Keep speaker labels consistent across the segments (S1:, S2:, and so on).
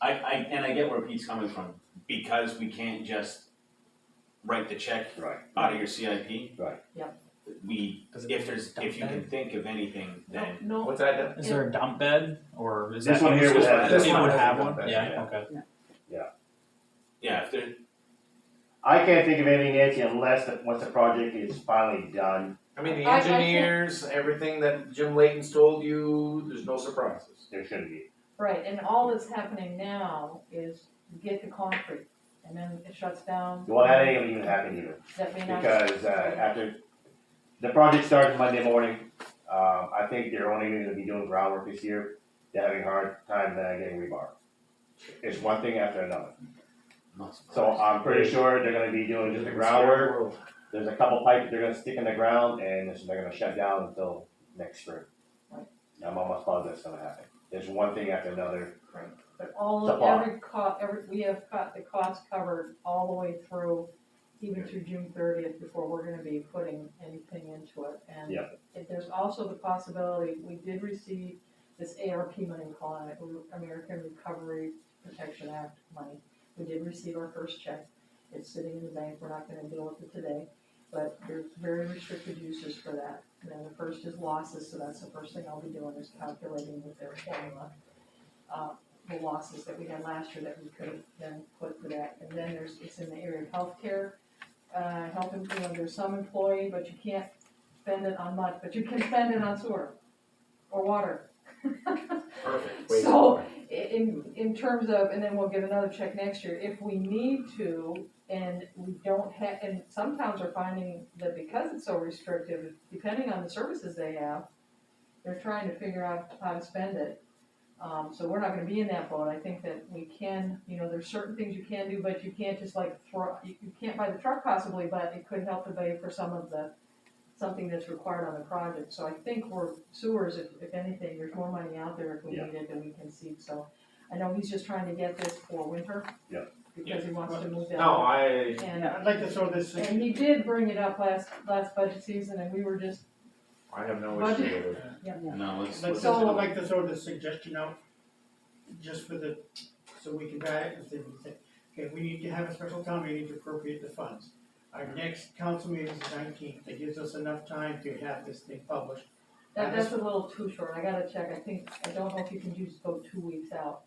S1: I, I, and I get where Pete's coming from, because we can't just write the check
S2: Right.
S1: out of your CIP.
S2: Right.
S3: Yep.
S1: We,
S4: Does it-
S1: if there's, if you can think of anything,
S3: No,
S1: then,
S3: no,
S4: What's that?
S5: Is there a dump bed or is that?
S2: This one here would have-
S4: this
S5: It
S4: one
S5: would
S4: has a
S5: have
S4: dump
S5: one,
S4: bed,
S5: yeah,
S1: yeah.
S5: okay.
S1: yeah, if there,
S2: I can't think of anything, Nancy, unless, the- once the project is finally done,
S4: I mean, the
S3: I- I can't-
S4: engineers, everything that Jim Layton's told you, there's no surprises.
S2: there shouldn't be.
S3: right, and all that's happening now is you get the concrete, and then it shuts down.
S2: Well, that ain't gonna even happen either,
S3: That may not.
S2: because, uh, after, the project starts Monday morning. Uh, I think they're only gonna be doing groundwork this year, they're having a hard time uh, getting rebar. It's one thing after another,
S1: not
S2: so I'm pretty sure they're gonna be doing just the groundwork, there's a couple pipes they're gonna stick in the ground and it's- they're gonna shut down until next spring.
S3: Right.
S2: I'm almost positive that's gonna happen. There's one thing after another.
S3: But all, of-
S2: Supply.
S3: every co, every, we have got the cost covered all the way through, even through June thirtieth, before we're gonna be putting anything into it, and.
S2: Yep.
S3: if There's also the possibility, we did receive this ARP money, we call it American Recovery Protection Act money. We did receive our first check, it's sitting in the bank, we're not gonna deal with it today, but there's very restricted uses for that. And then the first is losses, so that's the first thing I'll be doing is calculating with their formula. Uh, the losses that we had last year that we could have then put for that. And then there's, it's in the area of healthcare, uh, helping, you know, there's some employee, but you can't spend it on much, but you can spend it on sewer or water.
S4: Perfect.
S3: So- I- In, in terms of, and then we'll get another check next year, if we need to, and we don't have, and some towns are finding that because it's so restrictive, depending on the services they have, they're trying to figure out how to spend it. Um, so we're not gonna be in that boat, I think that we can, you know, there's certain things you can do, but you can't just like throw, you, you can't buy the truck possibly, but it could help to pay for some of the, something that's required on the project, so I think we're sewers, if, if anything, there's more money out there if we
S2: Yeah.
S3: need it than we can see, so. I know he's just trying to get this for winter.
S2: Yeah.
S3: Because he wants to move down.
S4: No, I,
S3: And,
S6: Yeah, I'd like to throw this,
S3: and he did bring it up last, last budget season and we were just,
S4: I have no
S3: Budget.
S4: issue with it.
S1: No, let's,
S6: I'd like
S1: let's,
S6: to- I'd
S1: no,
S6: like to throw this suggestion out, just for the, so we can buy it, if they would say, okay, we need to have a special town meeting to appropriate the funds. Our next council meeting is the nineteenth, that gives us enough time to have this thing published.
S3: that, that's a little too short, I gotta check, I think, I don't know if you can just go two weeks out.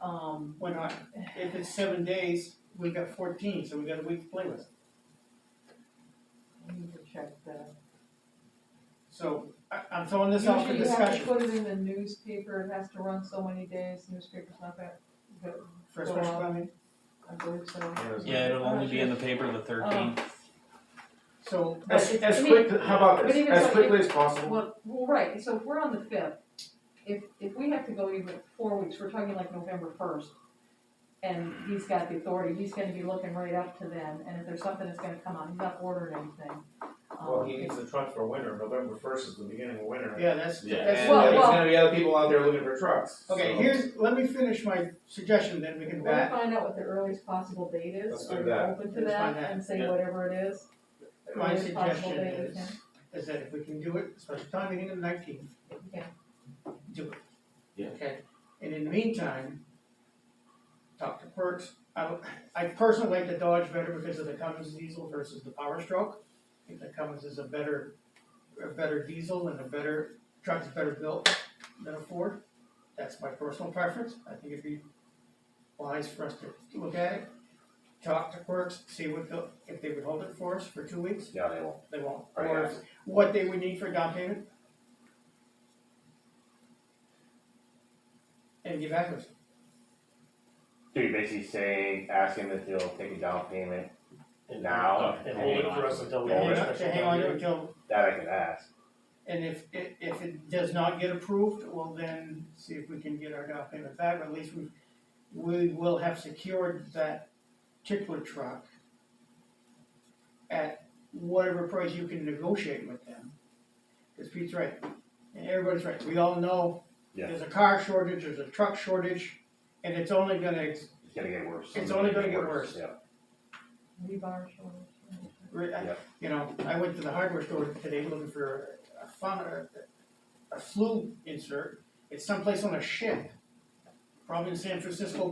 S3: Um,
S6: Why not? If it's seven days, we got fourteen, so we got a week to play with.
S3: I need to check that.
S6: So, I, I'm throwing this out for
S3: Usually you have to
S6: discussion,
S3: put it in the newspaper, it has to run so many days, newspaper's not that, good,
S6: for a special
S3: Well,
S6: town meeting.
S3: I believe so.
S5: Yeah, it'll only be in the paper the
S3: Um,
S5: thirteenth.
S6: So,
S3: but
S4: As,
S3: it's-
S4: as
S3: I mean,
S4: quick, how about
S3: but
S4: this,
S3: even
S4: as
S3: so,
S4: quickly as possible,
S3: Well, well, right, so if we're on the fifth, if, if we have to go even four weeks, we're talking like November first. And he's got the authority, he's gonna be looking right up to them, and if there's something that's gonna come out, he's not ordering anything.
S4: well,
S3: Um,
S4: he needs the truck for winter, November first is the beginning of winter.
S6: yeah, that's,
S1: Yeah.
S6: that's.
S4: And
S3: Well,
S4: there's
S3: well-
S4: gonna be other people out there looking for trucks,
S6: Okay,
S4: so-
S6: here's, let me finish my suggestion, then we
S3: We're
S6: can
S3: gonna
S6: back,
S3: find out what the earliest possible date
S4: Let's
S3: is,
S4: do
S3: are you
S4: that.
S3: open to
S6: Let's
S3: that,
S6: find that,
S3: and say
S4: yeah.
S3: whatever it is?
S6: my
S3: Earliest possible
S6: suggestion
S3: date we
S6: is, is that if we can do it, special time meeting on the nineteenth,
S3: can- we can.
S6: do it.
S1: Yeah.
S6: Okay, and in the meantime, talk to Perks, I, would- I personally like the Dodge better because of the Cummins diesel versus the Power Stroke. I think the Cummins is a better, a better diesel and a better, truck's better built than a Ford. That's my personal preference, I think it'd be wise for us to look at it, talk to Perks, see what, they'll- if they would hold it for us for two weeks,
S2: No, they won't.
S6: they won't,
S2: Right,
S6: or
S2: Oh, yeah.
S6: what they would need for down payment. And give back to us.
S2: So you're basically saying, asking that they'll take a down payment now,
S7: And hold it for us until we have
S2: Yeah.
S7: a
S6: Hang on,
S7: special
S6: hang
S7: town
S6: on
S7: meeting.
S6: until,
S2: that I can ask.
S6: and if, if, if it does not get approved, well then, see if we can get our down payment back, or at least we, we will have secured that particular truck at whatever price you can negotiate with them, cause Pete's right, and everybody's right, we all know
S2: Yeah.
S6: there's a car shortage, there's a truck shortage, and it's only gonna ex-
S2: It's gonna get worse.
S6: It's only gonna get worse.
S2: Yeah,
S3: Rebar shoulders.
S6: Re- I-
S2: Yeah.
S6: You know, I went to the hardware store today looking for a fun, a, a flu insert, it's someplace on a ship, probably in San Francisco